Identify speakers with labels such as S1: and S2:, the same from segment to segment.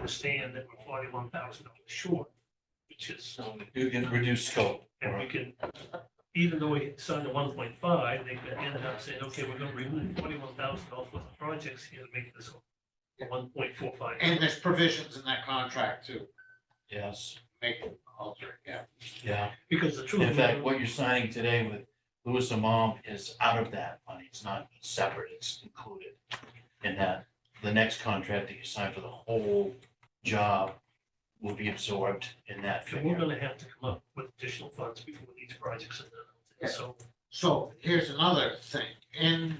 S1: understand that we're forty-one thousand dollars short, which is,
S2: So you get reduced scope.
S1: and we can, even though we signed the one point five, they could end up saying, okay, we're gonna remove forty-one thousand dollars worth of projects here to make this one point four five.
S3: And there's provisions in that contract to
S2: Yes,
S3: make them alter, it, yeah.
S2: yeah.
S1: Because the truth.
S2: In fact, what you're signing today with Louis and Mom is out of that money. It's not separate, it's included. in that the next contract that you sign for the whole job will be absorbed in that
S1: And we're
S2: figure.
S1: gonna have to come up with additional funds before these projects are
S3: Yeah.
S1: done. So
S3: So here's another thing, in,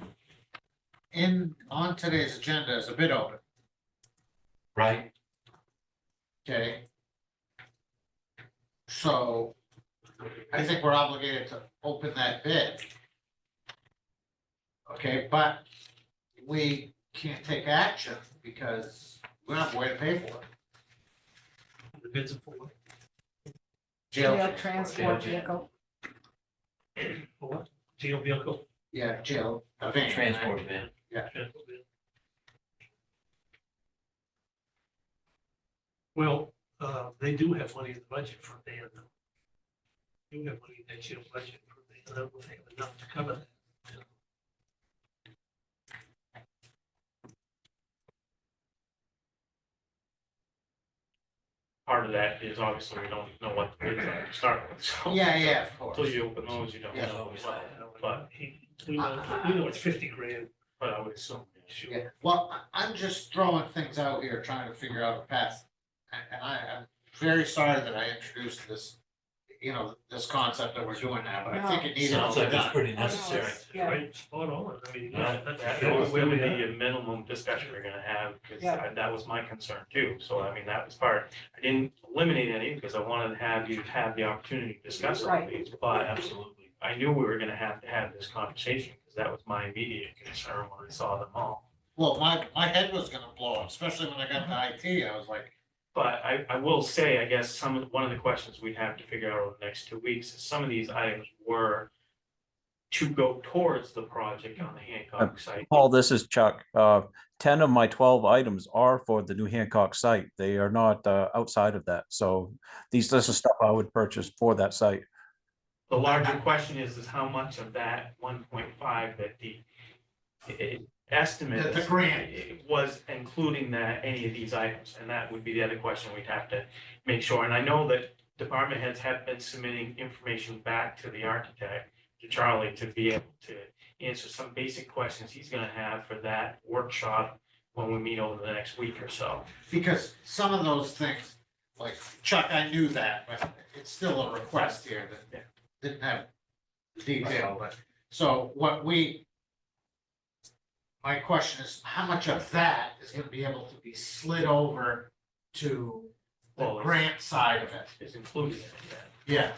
S3: in, on today's agenda is a bid open,
S2: Right,
S3: okay? So I think we're obligated to open that bid. Okay, but we can't take action because we don't have a way to pay for it.
S1: the bids are for,
S3: Jail.
S4: Jail
S3: transport.
S4: transport vehicle.
S1: for what? Jail vehicle.
S3: Yeah, jail, a van.
S2: transport van.
S1: transfer bid. Well, uh, they do have money in the budget for van. though. They Do have money in that jail budget for van. I don't know if they have enough to cover that.
S5: part of that is obviously we don't know what the bids are to start with, so.
S3: Yeah, yeah, of
S5: Until
S3: course.
S5: you open those, you don't
S3: Yeah.
S5: know.
S2: Always.
S5: what-
S1: I don't know.
S5: But-
S1: He- We know, we know it's fifty grand.
S5: But I would assume.
S1: Sure.
S3: Yeah, well, I- I'm just throwing things out here, trying to figure out a path. And, and I, I'm very sorry that I introduced this, you know, this concept that we're doing now, but I think it needed
S2: Sounds
S3: to be
S2: like it's
S3: done.
S2: pretty
S4: I know, it's-
S2: necessary.
S4: Yeah,
S1: Right, spot on. I mean,
S2: Yeah.
S1: that's.
S5: That
S1: that's
S5: was
S1: where
S5: gonna
S1: we are.
S5: be a minimum discussion we're gonna have, because
S4: Yeah.
S5: that was my concern too, so I mean, that was part. I didn't eliminate any, because I wanted to have you have the opportunity to discuss all
S4: Right.
S5: these,
S2: But
S5: but
S2: absolutely.
S5: I knew we were gonna have to have this conversation, because that was my immediate concern when I saw them all.
S3: Well, my, my head was gonna blow up, especially when I got to IT, I was like,
S5: But I, I will say, I guess, some, of one of the questions we have to figure out over the next two weeks is some of these items were to go towards the project on the Hancock site.
S6: Paul, this is Chuck. Uh, ten of my twelve items are for the New Hancock site. They are not, uh, outside of that. So these, this is stuff I would purchase for that site.
S5: The larger question is, is how much of that one point five that the eh, estimate
S3: The- the grant.
S5: was including that, any of these items, and that would be the other question we'd have to make sure. And I know that department heads have been submitting information back to the architect, to Charlie, to be able to answer some basic questions he's gonna have for that workshop when we meet over the next week or so.
S3: because some of those things, like Chuck, I knew that, but it's still a request here
S5: Yeah.
S3: that didn't have detail, but, so what we. My question is, how much of that is gonna be able to be slid over to
S5: Well,
S3: the
S5: it's-
S3: grant side of it?
S5: Is included in that.
S3: Yeah,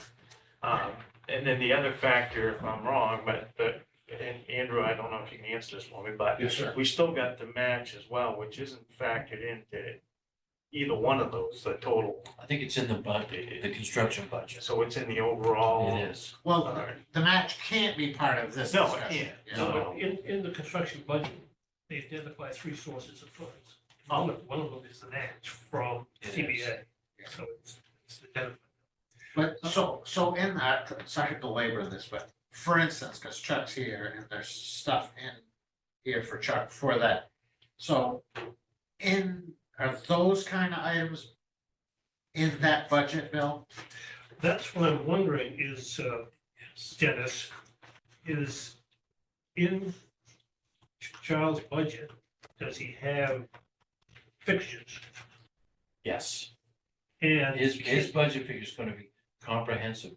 S5: Um, and then the other factor, if I'm wrong, but, but, and Andrew, I don't know if you can answer this for me, but
S3: yes, sir.
S5: we still got the match as well, which isn't factored into either one of those, the total.
S2: I think it's in the budget, the construction budget.
S5: So it's in the overall.
S2: It is.
S3: Well,
S5: Alright.
S3: the match can't be part of this
S5: No, it
S3: discussion.
S5: can't.
S3: Yeah.
S1: So in, in the construction budget, they identify three sources of funds. One of, one of them is the match from CBA. So it's, it's identified.
S3: But so, so in that, sorry to belabor this, but for instance, because Chuck's here and there's stuff in here for Chuck for that. So in, are those kind of items in that budget, Bill?
S1: That's what I'm wondering is, uh, Dennis, is in Charles' budget, does he have fixtures?
S2: Yes.
S1: And
S2: His, his budget figure is gonna be comprehensive.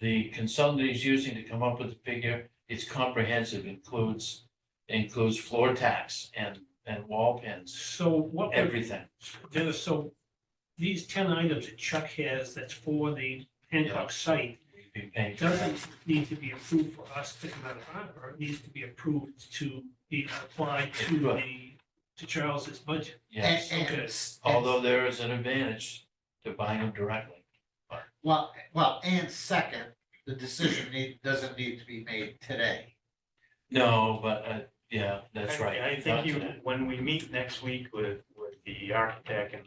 S2: The consultant he's using to come up with the figure, it's comprehensive, includes, includes floor tax and, and wall pins,
S1: so what, would-
S2: everything.
S1: Dennis, so these ten items that Chuck has that's for the Hancock site,
S2: We've been paying
S1: It
S2: for that.
S1: doesn't need to be approved for us to come out of harbor, it needs to be approved to be applied to the, to Charles's budget.
S2: Yes,
S3: And- and-
S1: Okay.
S2: although there is an advantage to buying them directly.
S3: Well, well, and second, the decision need, doesn't need to be made today.
S2: No, but, uh, yeah, that's
S5: I-
S2: right.
S5: I
S2: Not
S5: think you,
S2: today.
S5: when we meet next week with, with the architect and